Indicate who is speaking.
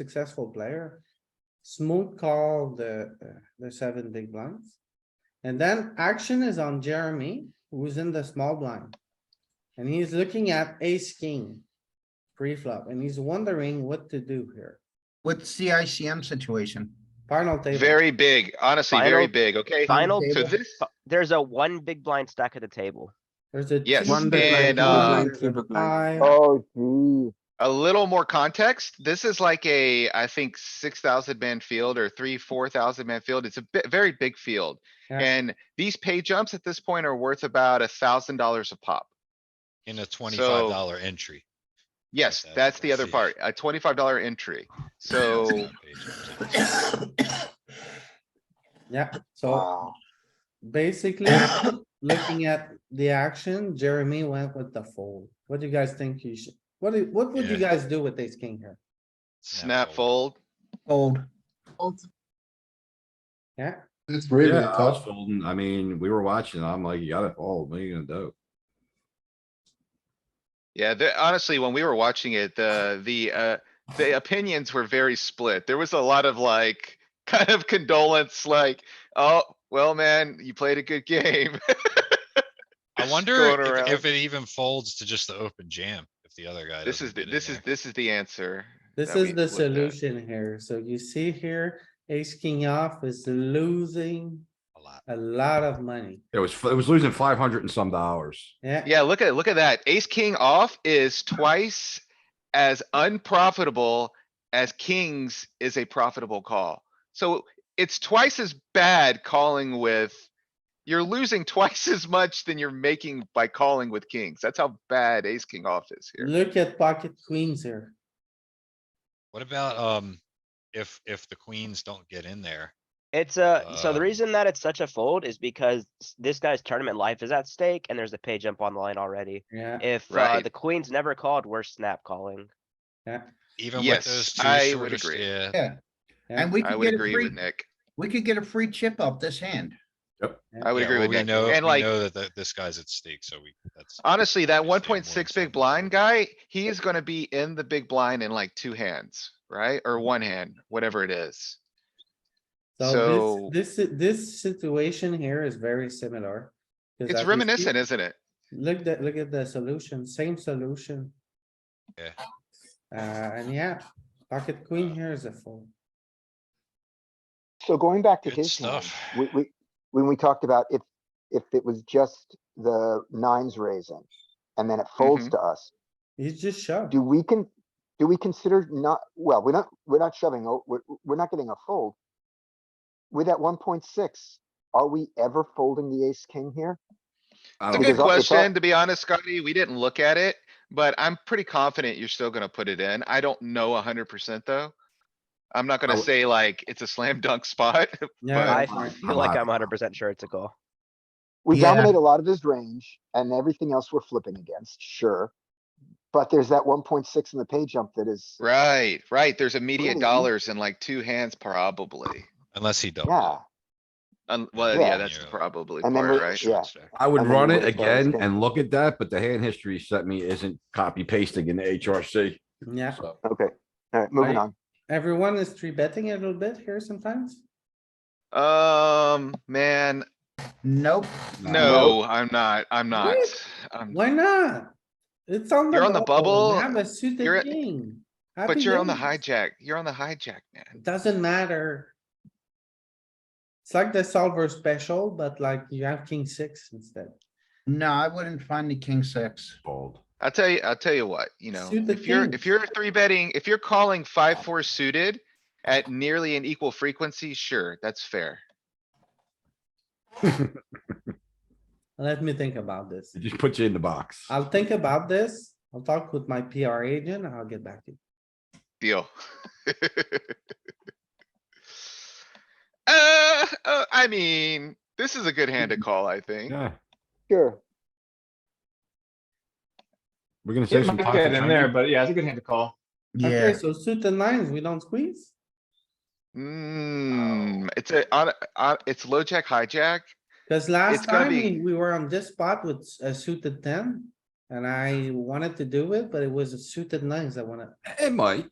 Speaker 1: successful player. Smooth call the, uh, the seven big blinds. And then action is on Jeremy, who's in the small blind. And he's looking at ace king. Pre-flop, and he's wondering what to do here.
Speaker 2: What's the ICM situation?
Speaker 1: Final table.
Speaker 3: Very big, honestly, very
Speaker 4: Final-
Speaker 3: big, okay?
Speaker 4: Final,
Speaker 3: So
Speaker 4: two-
Speaker 3: this,
Speaker 4: fi- there's a one big blind stack at the table.
Speaker 1: There's a.
Speaker 3: Yes,
Speaker 1: two
Speaker 3: and,
Speaker 1: big blind,
Speaker 3: uh,
Speaker 1: there's a five.
Speaker 5: Oh, gee.
Speaker 3: a little more context, this is like a, I think, six thousand man field or three, four thousand man field. It's a bit, very big field.
Speaker 1: Yeah.
Speaker 3: And these pay jumps at this point are worth about a thousand dollars a pop.
Speaker 6: in a twenty-five dollar entry.
Speaker 3: Yes,
Speaker 6: that's
Speaker 3: that's the other
Speaker 6: massive.
Speaker 3: part, a twenty-five dollar entry.
Speaker 6: That's
Speaker 3: So
Speaker 6: not paid.
Speaker 1: Yeah, so
Speaker 5: Wow.
Speaker 1: basically, looking at the action, Jeremy went with the fold. What do you guys think you should, what, do- what would you
Speaker 6: Yeah.
Speaker 1: guys do with ace king here?
Speaker 3: snap fold,
Speaker 2: Old.
Speaker 1: Yeah,
Speaker 7: It's really
Speaker 8: Yeah, I was
Speaker 7: tough.
Speaker 8: folding. I mean, we were watching. I'm like, you gotta fold. What are you gonna do?
Speaker 3: Yeah, the, honestly, when we were watching it, the, the, uh, the opinions were very split. There was a lot of like, kind of condolence, like, oh, well, man, you played a good game.
Speaker 6: I
Speaker 3: Going
Speaker 6: wonder
Speaker 3: around.
Speaker 6: if- if it even folds to just the open jam, if the other guy.
Speaker 3: This
Speaker 6: doesn't
Speaker 3: is, the-
Speaker 6: get in
Speaker 3: this is,
Speaker 6: there.
Speaker 3: this is the answer.
Speaker 1: this
Speaker 3: that we
Speaker 1: is the
Speaker 3: looked at.
Speaker 1: solution here. So you see here, ace king off is losing
Speaker 6: A lot.
Speaker 1: a lot of money.
Speaker 8: It was, it was losing five hundred and some dollars.
Speaker 1: Yeah,
Speaker 3: Yeah, look at, look at that. Ace, king off is twice as unprofitable as kings is a profitable call. So it's twice as bad calling with, you're losing twice as much than you're making by calling with kings. That's how bad ace, king off is here.
Speaker 1: look at pocket queens here.
Speaker 6: What about, um, if, if the queens don't get in there?
Speaker 4: It's a, so the
Speaker 6: Uh,
Speaker 4: reason that it's such a fold is because s- this guy's tournament life is at stake and there's a pay jump on the line already.
Speaker 1: Yeah,
Speaker 4: If uh,
Speaker 3: Right.
Speaker 4: the queens never called, we're snap calling.
Speaker 6: Even with
Speaker 3: Yes,
Speaker 6: those two
Speaker 3: I would
Speaker 6: shortest,
Speaker 3: agree.
Speaker 6: yeah,
Speaker 2: Yeah,
Speaker 1: yeah,
Speaker 2: and we
Speaker 3: I
Speaker 2: could
Speaker 3: would
Speaker 2: get a
Speaker 3: agree with
Speaker 2: free,
Speaker 3: Nick.
Speaker 2: we could get a free chip up this hand.
Speaker 3: I would
Speaker 6: yeah,
Speaker 3: agree with
Speaker 6: well, we
Speaker 3: Nick.
Speaker 6: know, we
Speaker 3: And like,
Speaker 6: know that, that this guy's at stake, so we, that's.
Speaker 3: honestly, that
Speaker 6: I'd say more
Speaker 3: one
Speaker 6: than
Speaker 3: point six big
Speaker 6: 7%.
Speaker 3: blind guy, he is gonna be in the big blind in like two hands, right? Or one hand, whatever it is.
Speaker 1: so
Speaker 3: So-
Speaker 1: this, this, this situation here is very similar. 'Cause as
Speaker 3: It's
Speaker 1: you see-
Speaker 3: reminiscent, isn't it?
Speaker 1: Look at, look at the solution, same solution.
Speaker 6: Yeah.
Speaker 1: Uh, and yeah, pocket queen here is a fold.
Speaker 5: So going back to
Speaker 6: Good
Speaker 5: his hand,
Speaker 6: stuff.
Speaker 5: we, we, when we talked about if, if it was just the nines raising and then it folds
Speaker 6: Mm-hmm.
Speaker 3: Mhm.
Speaker 5: to us,
Speaker 1: He's just shoved.
Speaker 5: do we can, do we consider not, well, we're not, we're not shoving, o- we're, we're not getting a fold. With that one point six, are we ever folding the ace king here?
Speaker 8: I
Speaker 3: It's a
Speaker 8: don't
Speaker 3: good
Speaker 5: Because
Speaker 8: think-
Speaker 5: I- it's all-
Speaker 3: question, to be honest, Scotty. We didn't look at it, but I'm pretty confident you're still gonna put it in. I don't know hundred percent though. I'm not gonna
Speaker 8: w-
Speaker 3: say like it's a slam dunk spot.
Speaker 1: Yeah,
Speaker 4: I
Speaker 1: that's fine.
Speaker 4: feel like I'm hundred percent sure it's a call.
Speaker 5: We
Speaker 2: Yeah.
Speaker 5: dominate a lot of his range and everything else we're flipping against, sure. But there's that one point six in the pay jump that is,
Speaker 3: Right, right. There's immediate
Speaker 5: Ooh.
Speaker 3: dollars in like two hands probably.
Speaker 6: Unless he doubles.
Speaker 5: yeah.
Speaker 3: Un- well, yeah,
Speaker 5: Yeah.
Speaker 3: that's the
Speaker 6: Yeah.
Speaker 3: probably
Speaker 5: And then
Speaker 3: part,
Speaker 5: we-
Speaker 3: right?
Speaker 5: yeah.
Speaker 8: I would
Speaker 5: I mean,
Speaker 8: run
Speaker 5: we
Speaker 8: it
Speaker 5: would've lost
Speaker 8: again
Speaker 5: game.
Speaker 8: and look at that, but the hand history sent me isn't copy pasting in the HRC.
Speaker 1: Yeah,
Speaker 8: So
Speaker 5: Okay, alright, moving
Speaker 1: Right.
Speaker 5: on.
Speaker 1: everyone is three betting a little bit here sometimes.
Speaker 3: Um, man,
Speaker 2: Nope.
Speaker 3: no, I'm not, I'm not. Um, I'm-
Speaker 1: Why not? It's on the.
Speaker 3: You're on the
Speaker 1: we
Speaker 3: bubble.
Speaker 1: Have a
Speaker 3: You're
Speaker 1: suited
Speaker 3: at-
Speaker 1: king.
Speaker 3: But
Speaker 1: Happy
Speaker 3: you're on the
Speaker 1: days.
Speaker 3: hijack, you're on the hijack, man.
Speaker 1: Doesn't matter. It's like the solver special, but like you have king six instead.
Speaker 2: No, I wouldn't find the king six.
Speaker 8: fold.
Speaker 3: I'll tell you, I'll tell you what, you know,
Speaker 1: Suited
Speaker 3: if you're,
Speaker 1: kings.
Speaker 3: if you're three betting, if you're calling five, four suited at nearly an equal frequency, sure, that's fair.
Speaker 1: Let me think about this.
Speaker 8: It just puts you in the box.
Speaker 1: I'll think about this. I'll talk with my PR agent and I'll get back to you.
Speaker 3: Deal. Uh, uh, I mean, this is a good hand to call, I think.
Speaker 8: Yeah,
Speaker 5: Sure.
Speaker 8: we're gonna say
Speaker 9: It
Speaker 8: some.
Speaker 9: might
Speaker 8: pocket
Speaker 9: get in there,
Speaker 8: change.
Speaker 9: but yeah, it's a good hand to call.
Speaker 1: Okay,
Speaker 2: Yeah,
Speaker 1: so suited nines, we don't squeeze?
Speaker 3: Hmm, it's a, on, on, it's low jack, hijack.
Speaker 1: Cause last
Speaker 3: It's gonna
Speaker 1: time
Speaker 3: be-
Speaker 1: we we were on this spot with s- a suited ten. And I wanted to do it, but it was a suited nines I wanna,
Speaker 8: It might.